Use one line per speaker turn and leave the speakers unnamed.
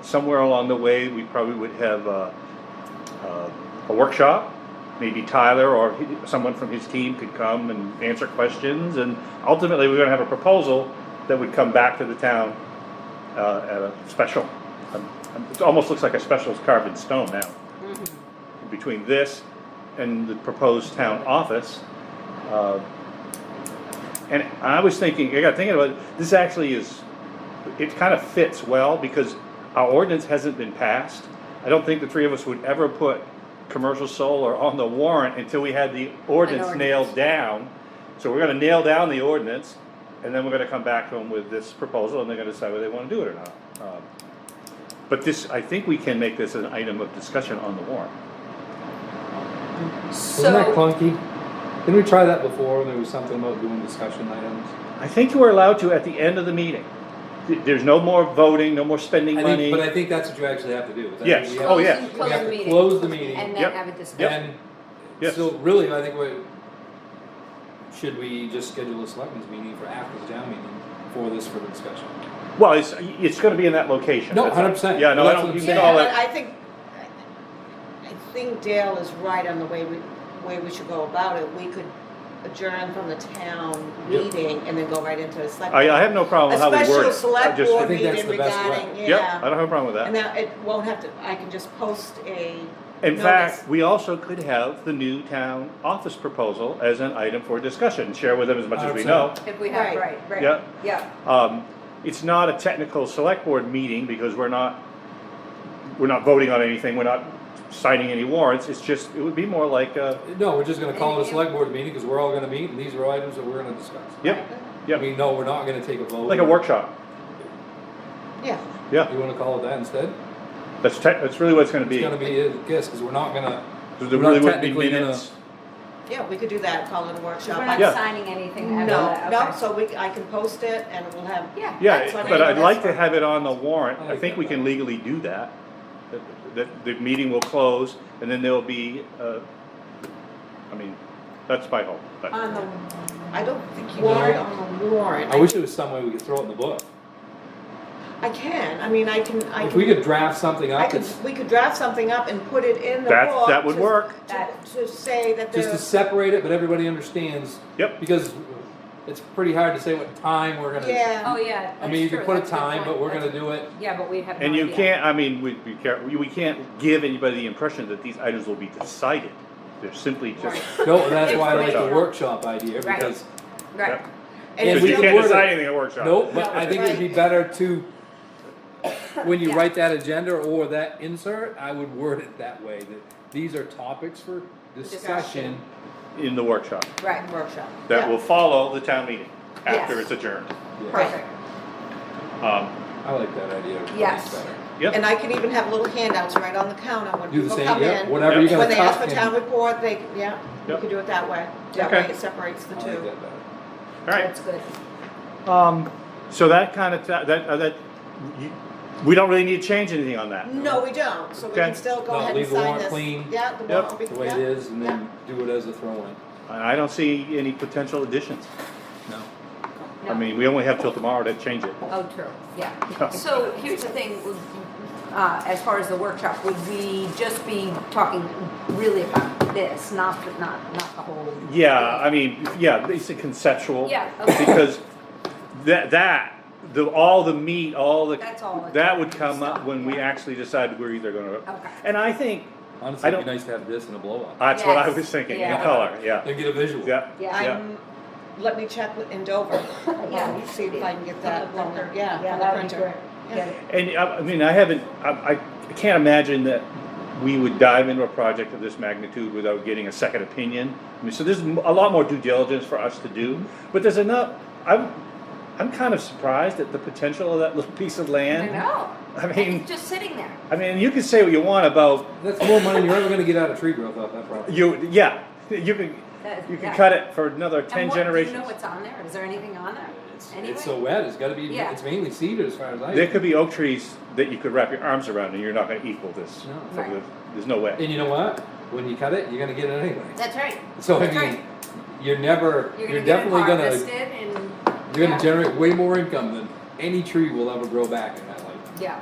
somewhere along the way, we probably would have uh, uh, a workshop. Maybe Tyler or he- someone from his team could come and answer questions, and ultimately, we're gonna have a proposal that would come back to the town uh, at a special. Um, It almost looks like a special is carved in stone now. Between this and the proposed town office, uh, and I was thinking, I got thinking about, it, this actually is, it kind of fits well because our ordinance hasn't been passed. I don't think the three of us would ever put commercial solar on the warrant until we had the ordinance
ordinance.
nailed down. So we're gonna nail down the ordinance and then we're gonna come back to them with this proposal and they're gonna decide whether they wanna do it or not. Um, But this, I think we can make this an item of discussion on the warrant.
So.
Wasn't that clunky? Didn't we try that before? There was something about doing discussion items.
I think you are allowed to at the end of the meeting. Th- There's no more voting, no more spending
I
money.
think, but I think that's what you actually have to do. is I think
Yes.
we have-
Oh, yeah.
Close-
We have
the
to
meeting.
close the meeting.
And
Yep.
then have a discussion.
And
Yes.
so really, I think what, should we just schedule a selectmen's meeting for after the town meeting for this for the discussion?
Well, it's, it's gonna be in that location.
No,
That's all.
100%.
Yeah, no, I
That's
don't,
what
you
I'm
can
saying.
all
Yeah, but
that,
I think, I- I think Dale is right on the way we, way we should go about it. We could adjourn from the town
Yep.
meeting and then go right into the select.
I, I have no problem
A
with how we word it.
special
I
select
just-
I
board
think that's
meeting
the best way.
regarding,
Yep, I
yeah.
don't have a problem with
And
that.
now it won't have to, I can just post a.
In
notice.
fact, we also could have the new town office proposal as an item for discussion, share with them as much as we know.
If we have,
Right.
right, right.
Yeah.
Yeah.
Um, it's not a technical select board meeting because we're not, we're not voting on anything, we're not signing any warrants, it's just, it would be more like, uh,
No, we're just gonna call it a select board meeting, cause we're all gonna meet, and these are items that we're gonna discuss.
yep,
I
yep,
mean, no, we're not gonna take a vote.
like a workshop.
Yeah,
Yeah,
You wanna call it that instead?
that's tech, that's really what it's gonna be.
It's gonna be, a guess, cause we're not gonna,
There
we're
really
not
wouldn't be
technically gonna-
minutes.
yeah, we could do that, call it a workshop.
We're
I-
Yeah.
not signing anything after
No,
that,
no,
okay.
so we, I can post it and we'll have.
Yeah.
That's
Yeah,
what I
but
mean,
I'd
that's
like to
what-
have it on the warrant,
I
I
like
think
that.
we can legally do that. That- That, the meeting will close, and then there'll be, uh, I mean, that's my hope, but,
On the, I don't think you
No.
are on the warrant.
I wish there was some way we could throw it in the book.
I can, I mean, I can, I can.
If we could draft something
I
up,
could,
that's
we could draft something up and put it in the
That-
book.
that would
to-
work.
To to say that
just to
there's,
separate it, but everybody understands,
yep,
because it's pretty hard to say what time we're gonna.
Oh,
yeah,
yeah.
I mean, you
that's
could
true.
put a
That's good
time,
point.
but we're gonna
That's-
do it,
Yeah, but we have no
and you
idea.
can't, I mean, we, we can't, we can't give anybody the impression that these items will be decided. They're simply just,
Right.
no, that's why I like the
Right.
workshop idea,
Right.
because,
Right.
Yep.
And
because
we
you
can
can't
word it.
decide anything at a workshop.
no, but I think it'd be better to, when you write that agenda or that insert, I would word it that way, that these are topics for discussion.
In the workshop,
Right.
workshop.
that
Yeah.
will follow the town meeting after
Yes.
it's adjourned.
Yeah,
Perfect.
Um,
I like that idea. That's
Yes.
better.
And
yep,
I can even have little handouts right on the counter when
Do the
people
same,
come
yeah,
in. When
whatever
Yep.
you're gonna
they ask
talk
for
in.
town report, they, yeah, we
Yep.
could do it that way. That way
Okay.
it separates the
I like
two.
that better.
alright.
That's good.
Um, so that kind of, that, uh, that, you- we don't really need to change anything on that.
No, we don't, so we
Okay.
can still go
No,
ahead and
leave the
sign
warrant
this.
clean.
Yeah, the
Yep.
warrant will be,
The way it
yeah.
is, and then do it as a throw-in.
I I don't see any potential additions.
No.
I
No.
mean, we only have till tomorrow to change it.
Oh, true, yeah. So here's the thing, uh, as far as the workshop, would we just be talking really about this, not, not, not the whole?
Yeah, I mean, yeah, it's a conceptual.
Yeah, okay.
Because that, that, the, all the meat, all the.
That's all it's-
That would come up when we
Yeah.
actually decide we're either gonna.
Okay.
And I think,
Honestly, it'd be
don't-
nice to have this in a blow-up.
that's what I
Yes,
was thinking, in
yeah.
color, yeah,
And get a visual.
yeah,
Yeah.
yeah.
I'm, let me check with, in Dover,
Yeah.
see if I can get that,
From the printer.
yeah,
Yeah,
from the
that'd be
printer.
great.
Yeah.
Get it.
And uh, I, I mean, I haven't, I, I can't imagine that we would dive into a project of this magnitude without getting a second opinion. I mean, so there's m- a lot more due diligence for us to do, but there's enough, I'm, I'm kind of surprised at the potential of that little piece of
I
land.
know.
I mean-
It's just sitting there.
I mean, you can say what you want about,
That's more money you're ever gonna get out of tree growth off that property.
you, yeah, you can,
That-
you can
yeah.
cut it for another ten
And what- Do you
generations.
know what's on there? Is there anything on there?
It's,
Anyway?
it's so wet, it's gotta be,
Yeah.
it's mainly cedar as far as I
There
know.
could be oak trees that you could wrap your arms around and you're not gonna equal this.
No.
So
Right.
there's- There's no way.
And you know what? When you cut it, you're gonna get it anyway.
That's right.
So I
That's
mean,
right.
you're never,
You're
you're
gonna get it
definitely
harvested
gonna,
and.
you're
yeah.
gonna generate way more income than any tree will ever grow back in that life.
Yeah,